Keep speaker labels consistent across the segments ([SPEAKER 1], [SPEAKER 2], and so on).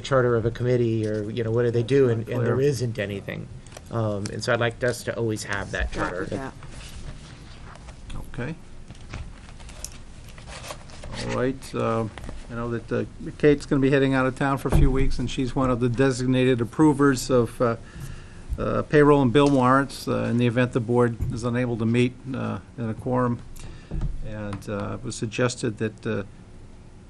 [SPEAKER 1] charter of a committee or, you know, what do they do? And, and there
[SPEAKER 2] Clear.
[SPEAKER 1] isn't anything. Um, and so I'd like us to always have that
[SPEAKER 3] Got
[SPEAKER 1] charter.
[SPEAKER 3] that.
[SPEAKER 2] Okay. All right, uh, I know that uh, Kate's going to be heading out of town for a few weeks, and she's one of the designated approvers of uh, uh, payroll and bill warrants uh, in the event the board is unable to meet uh, in a quorum. And uh, it was suggested that uh,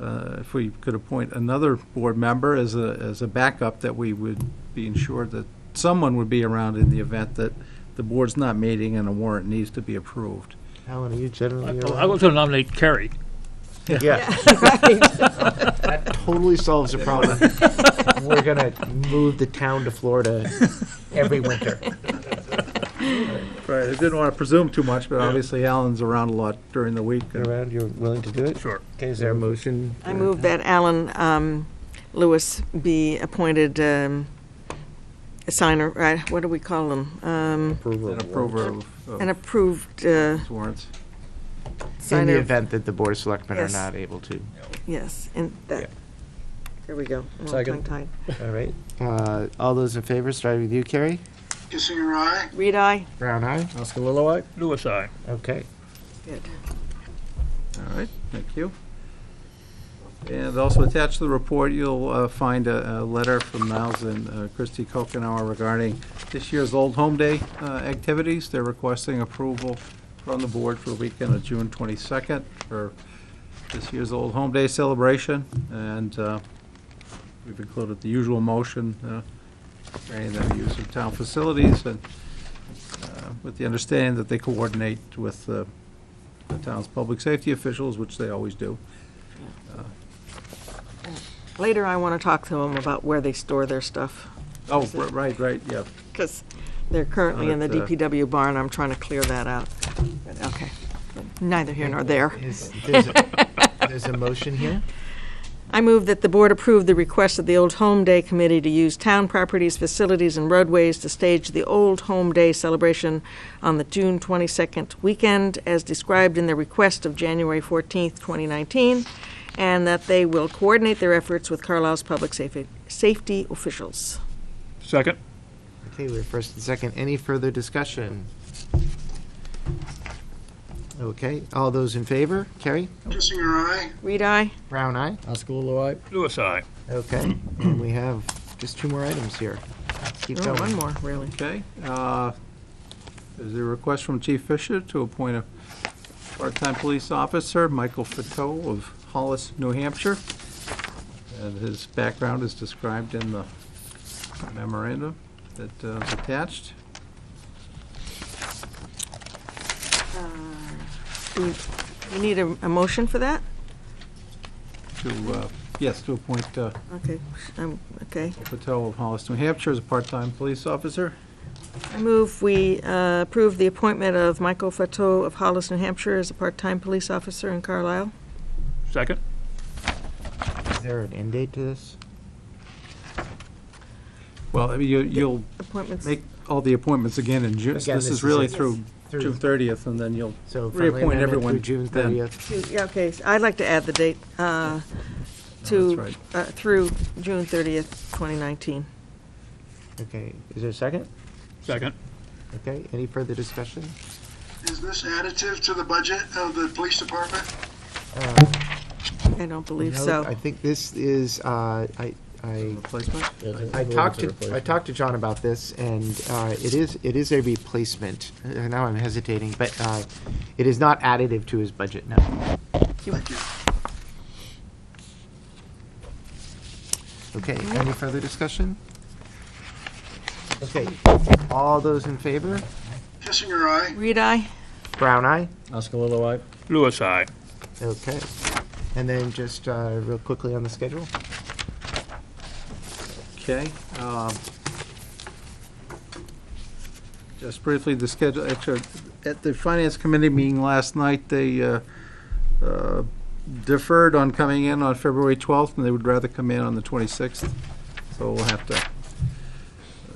[SPEAKER 2] uh, if we could appoint another board member as a, as a backup, that we would be ensured that someone would be around in the event that the board's not meeting and a warrant needs to be approved.
[SPEAKER 1] Alan, are you generally
[SPEAKER 4] I was going to nominate Kerry.
[SPEAKER 1] Yeah, that totally solves the problem. We're gonna move the town to Florida every winter.
[SPEAKER 2] Right, I didn't want to presume too much, but obviously Alan's around a lot during the week. uh,
[SPEAKER 1] Around, you're willing to do it?
[SPEAKER 4] Sure.
[SPEAKER 1] Okay, is there a motion?
[SPEAKER 3] I move that Alan um, Lewis be appointed um, a signer, right, what do we call them? Um,
[SPEAKER 1] Approval.
[SPEAKER 2] An
[SPEAKER 1] of
[SPEAKER 2] approver
[SPEAKER 1] warrants.
[SPEAKER 2] of-
[SPEAKER 3] An
[SPEAKER 2] of
[SPEAKER 3] approved uh,
[SPEAKER 2] warrants.
[SPEAKER 1] In the
[SPEAKER 3] signer,
[SPEAKER 1] event that the Board of Selectmen are
[SPEAKER 3] Yes.
[SPEAKER 1] not able to.
[SPEAKER 3] yes, and
[SPEAKER 1] Yeah.
[SPEAKER 3] that, there we go. I'm all
[SPEAKER 1] Second.
[SPEAKER 3] tongue-tied.
[SPEAKER 1] All right. Uh, all those in favor, starting with you, Carrie?
[SPEAKER 5] Kissing eye.
[SPEAKER 3] Reed, aye?
[SPEAKER 1] Brown eye.
[SPEAKER 2] Oscar Lilloye?
[SPEAKER 4] Lewis, I.
[SPEAKER 1] Okay.
[SPEAKER 3] Good.
[SPEAKER 2] All right, thank you. And also attached to the report, you'll uh, find a, a letter from Niles and uh, Christie Kokenauer regarding this year's Old Home Day uh, activities. They're requesting approval from the board for the weekend of June 22nd for this year's Old Home Day celebration. And uh, we've included the usual motion, uh, granting them use of town facilities and uh, with the understanding that they coordinate with uh, the town's public safety officials, which they always do.
[SPEAKER 3] Later, I want to talk to him about where they store their stuff,
[SPEAKER 2] Oh, ri- right, right, yeah.
[SPEAKER 3] because they're currently in the
[SPEAKER 2] Not
[SPEAKER 1] uh,
[SPEAKER 2] at the-
[SPEAKER 3] DPW barn, I'm trying to clear that out. But, Okay, neither here nor there.
[SPEAKER 1] Is- There's a- there's a motion here?
[SPEAKER 3] I move that the board approve the request of the Old Home Day Committee to use town properties, facilities, and roadways to stage the Old Home Day celebration on the June 22nd weekend, as described in the request of January 14th, 2019, and that they will coordinate their efforts with Carlisle's public safety, safety officials.
[SPEAKER 4] Second.
[SPEAKER 1] Okay, we're first and second. Any further discussion? Okay, all those in favor? Carrie?
[SPEAKER 5] Kissing eye.
[SPEAKER 3] Read I.
[SPEAKER 1] Brown eye.
[SPEAKER 4] Lewis, I.
[SPEAKER 1] Okay, and we have just two more items here. Keep
[SPEAKER 3] Oh, one
[SPEAKER 1] going.
[SPEAKER 3] more, really.
[SPEAKER 2] Okay. uh, There's a request from Chief Fisher to appoint a part-time police officer, Michael Fateau of Hollis, New Hampshire. And his background is described in the memorandum that uh, is attached.
[SPEAKER 3] Do we need a, a motion for that?
[SPEAKER 2] To, uh, yes, to appoint uh,
[SPEAKER 3] Okay, um, okay.
[SPEAKER 2] Fateau of Hollis, New Hampshire as a part-time police officer.
[SPEAKER 3] I move we uh, approve the appointment of Michael Fateau of Hollis, New Hampshire as a part-time police officer in Carlisle.
[SPEAKER 4] Second.
[SPEAKER 1] Is there an end date to this?
[SPEAKER 2] Well, I mean, you- you'll
[SPEAKER 3] Appointments,
[SPEAKER 2] make all the appointments again in June. This
[SPEAKER 1] Again, this
[SPEAKER 2] is
[SPEAKER 1] is
[SPEAKER 2] really
[SPEAKER 1] it.
[SPEAKER 2] through
[SPEAKER 1] Through-
[SPEAKER 2] June 30th, and then you'll
[SPEAKER 1] So friendly
[SPEAKER 2] reappoint
[SPEAKER 1] amendment
[SPEAKER 2] everyone.
[SPEAKER 1] Through June
[SPEAKER 2] then.
[SPEAKER 1] thirtieth.
[SPEAKER 3] yeah, okay, so I'd like to add the date uh, to,
[SPEAKER 2] right.
[SPEAKER 3] uh, through June 30th, 2019.
[SPEAKER 1] Okay, is there a second?
[SPEAKER 4] Second.
[SPEAKER 1] Okay, any further discussion?
[SPEAKER 5] Is this additive to the budget of the police department?
[SPEAKER 3] I don't believe
[SPEAKER 1] No, I
[SPEAKER 3] so.
[SPEAKER 1] think this is, uh, I, I,
[SPEAKER 2] Replacement?
[SPEAKER 1] I talked to, I talked to John about this and, uh, it is, it is a replacement. Uh, Now I'm hesitating, but, uh, it is not additive to his budget now.
[SPEAKER 5] Thank you.
[SPEAKER 1] Okay, any further discussion? Okay, all those in favor?
[SPEAKER 5] Kissing eye.
[SPEAKER 3] Read I.
[SPEAKER 1] Brown eye?
[SPEAKER 4] Lewis, I.
[SPEAKER 1] Okay. And then just uh, real quickly on the schedule?
[SPEAKER 2] Okay. um, Just briefly, the schedule, actually, at the Finance Committee meeting last night, they uh, uh, deferred on coming in on February 12th, and they would rather come in on the 26th. So we'll have to,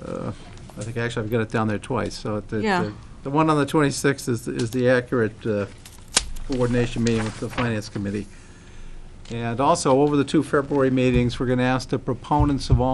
[SPEAKER 2] uh, I think, actually, I've got it down there twice, so the-
[SPEAKER 3] Yeah.
[SPEAKER 2] the, the one on the 26th is, is the accurate uh, coordination meeting with the Finance Committee. And also, over the two February meetings, we're going to ask the proponents of all